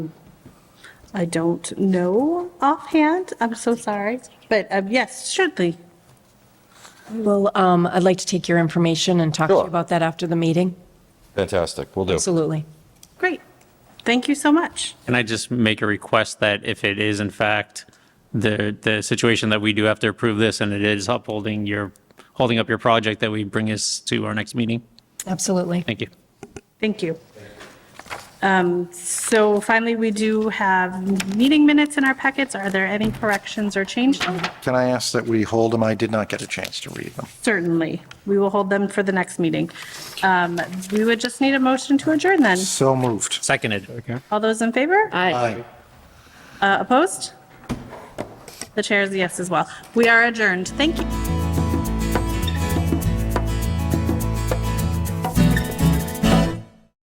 I don't know offhand. I'm so sorry. But um, yes, certainly. Well, um, I'd like to take your information and talk to you Sure. about that after the meeting. Fantastic, we will do. Absolutely. Great. Thank you so much. Can I just make a request that if it is in fact the, the situation that we do have to approve this and it is upholding your, holding up your project, that we bring this to our next meeting? Absolutely. Thank you. Thank you. Um, So finally, we do have meeting minutes in our packets. Are there any corrections or changes? Can I ask that we hold them? I did not get a chance to read them. Certainly. We will hold them for the next meeting. Um, We would just need a motion to adjourn then. So moved. Seconded. All those in favor? Aye. Uh, Opposed? The chair is a yes as well. We are adjourned. Thank you.